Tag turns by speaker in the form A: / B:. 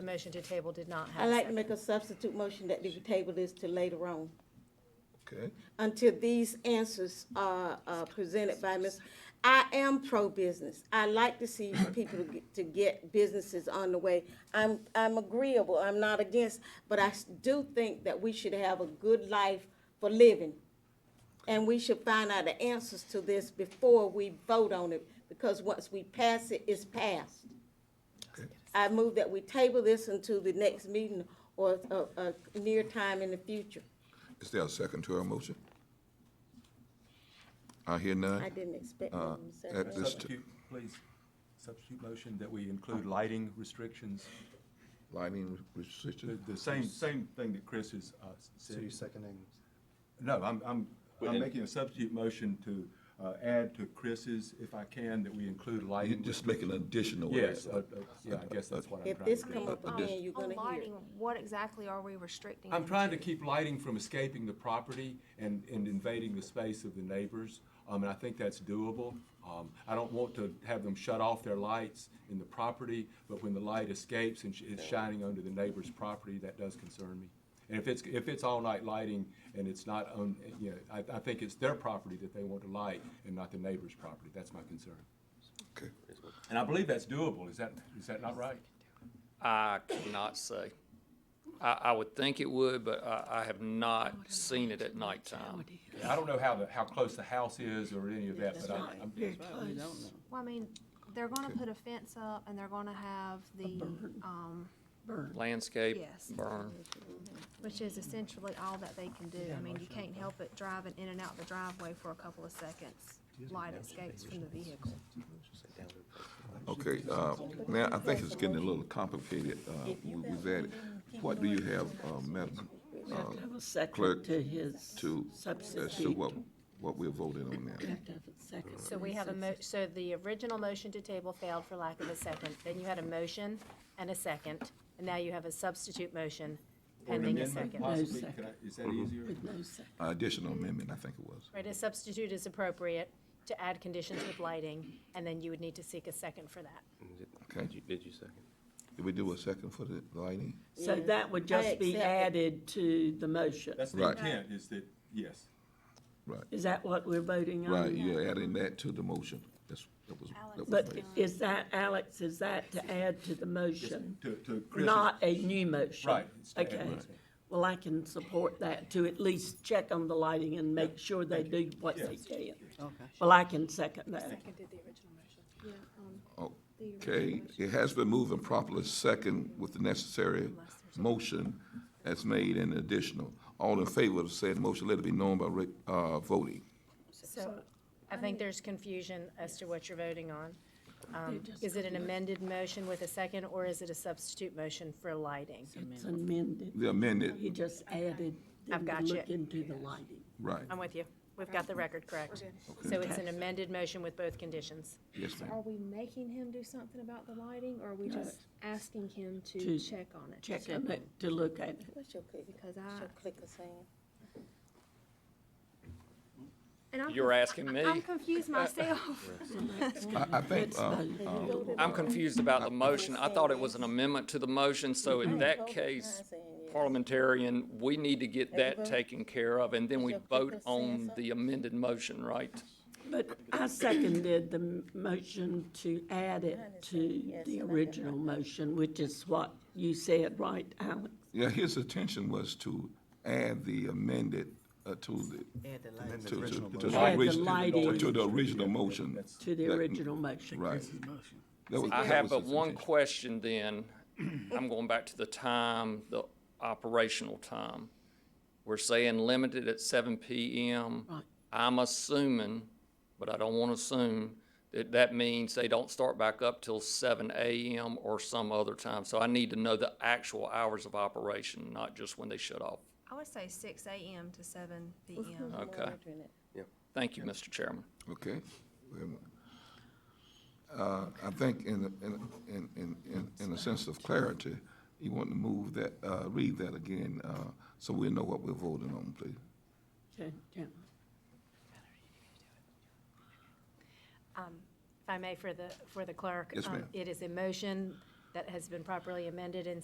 A: The motion to table did not have.
B: I'd
A: a
B: like to
A: second.
B: make a substitute motion that we table this to later on,
C: Okay,
B: until these answers are, uh presented by Ms. I am pro-business. I like to see people to get- to get businesses on the way. I'm, I'm agreeable, I'm not against, but I s- do think that we should have a good life for living. And we should find out the answers to this before we vote on it, because once we pass it, it's passed. I move that we table this until the next meeting or a, a near time in the future.
C: is there a second to our motion? I hear none.
B: I didn't expect.
C: Uh,
B: them to say
C: at
B: that.
C: this-
D: Substitute, please, substitute motion that we include lighting restrictions,
C: Lighting
D: the,
C: restrictions,
D: the same, same thing that Chris has uh,
E: So you're
D: said.
E: seconding,
D: No, I'm, I'm, I'm
F: Within-
D: making a substitute motion to uh, add to Chris's, if I can, that we include
C: you
D: lighting.
C: just make an additional.
D: Yes, uh, uh, yeah, I guess that's what I'm
B: If
D: trying
B: this
D: to
B: come
D: do.
B: up
C: Uh,
B: again, you're
G: On
B: gonna hear.
G: lighting, what exactly are we restricting?
D: I'm
G: them
D: trying to keep lighting from escaping the property and, and invading the space of the neighbors. Um, and I think that's doable. Um, I don't want to have them shut off their lights in the property, but when the light escapes and sh- it's shining onto the neighbor's property, that does concern me. And if it's, if it's all-night lighting and it's not on, you know, I, I think it's their property that they want to light and not the neighbor's property. That's my concern.
C: Okay.
D: And I believe that's doable. Is that, is that not right?
F: I cannot say. I, I would think it would, but I, I have not seen it at nighttime.
D: I don't know how the, how close the house is or any of that, but I- I'm,
G: Well, I mean, they're gonna put a fence up and they're gonna have the, um,
F: Landscape,
G: Yes.
F: burn.
G: which is essentially all that they can do. I mean, you can't help it driving in and out the driveway for a couple of seconds. Light escapes from the vehicle.
C: Okay, uh, now, I think it's getting a little complicated, uh, we- we've added, what do you have, uh, Madam
H: We have to have a second
C: Clerk,
H: to his
C: to, as to
H: substitute.
C: what, what we're voting on
H: We
C: now.
H: have to have a second.
A: So we have a mo, so the original motion to table failed for lack of a second. Then you had a motion and a second, and now you have a substitute motion
D: Or an
A: pending a
D: amendment
A: second.
D: Possibly,
H: No
D: Could I- is that easier?
H: With no second.
C: Uh, Additional amendment, I think it was.
A: Right, a substitute is appropriate to add conditions with lighting, and then you would need to seek a second for that.
C: Did
F: you, did you second?
C: Did we do a second for the lighting?
H: So that would
B: I
H: just be
B: accept it.
H: added to the motion.
D: That's the
C: Right.
D: intent, is that, yes.
C: Right,
H: Is that what we're voting on?
C: right, you're adding that to the motion, that's, that was. that was
H: But
C: made.
H: is that, Alex, is that to add to the motion?
D: To, to Chris's.
H: Not a new motion?
D: Right, it's to add
H: Okay.
D: motion.
H: Well, I can support that to at least check on the lighting and make sure they do what they can. Okay. Well, I can second that.
C: Okay, it has been moved and properly second with the necessary motion as made and additional. All in favor of said motion, let it be known by, re- uh, voting.
A: So I think there's confusion as to what you're voting on. Um, Is it an amended motion with a second, or is it a substitute motion for lighting?
H: It's amended.
C: The amended,
H: He just added
A: I've
H: them to
A: got you.
H: look into the lighting.
C: right,
A: I'm with you. We've got the record correct. So it's an amended motion with both conditions.
C: yes, ma'am.
G: Are we making him do something about the lighting or are we
H: just
G: asking him
H: To-
G: check on it?
H: Check on it, to look at it.
B: What's your click,
G: Because
B: what's
G: I,
B: your clicker saying?
G: and I'm.
F: You're asking me?
G: I'm confused myself.
C: I, I think, uh,
F: I'm confused about the motion. I thought it was an amendment to the motion, so
G: Mm.
F: in that case, parliamentarian, we need to get that taken care of, and then we vote on the amended motion, right?
H: But I seconded the m- motion to add it to the original motion, which is what you said, right, Alex?
C: yeah, his intention was to add the amended, uh, to the,
E: amend the
C: to, to,
E: original
C: to
E: motion.
C: the
H: Add the
C: original,
H: lighting.
C: to the original motion,
H: To the
C: That-
H: original motion.
C: right. That was-
F: I
C: that
F: have
C: was
F: but
C: his
F: one
C: intention.
F: question then. I'm going back to the time, the operational time. We're saying limited at seven PM.
H: Right.
F: I'm assuming, but I don't want to assume, that that means they don't start back up till seven AM or some other time. So I need to know the actual hours of operation, not just when they shut off.
G: I would say six AM to seven PM.
F: Okay. Thank you, Mr. Chairman.
C: Okay. Wait a minute. Uh, I think in, in, in, in, in- in a sense of clarity, you want to move that, uh, read that again, uh, so we know what we're voting on, please.
H: Okay, yeah.
A: If I may, for the, for the clerk.
C: Yes,
A: um,
C: ma'am.
A: It is a motion that has been properly amended and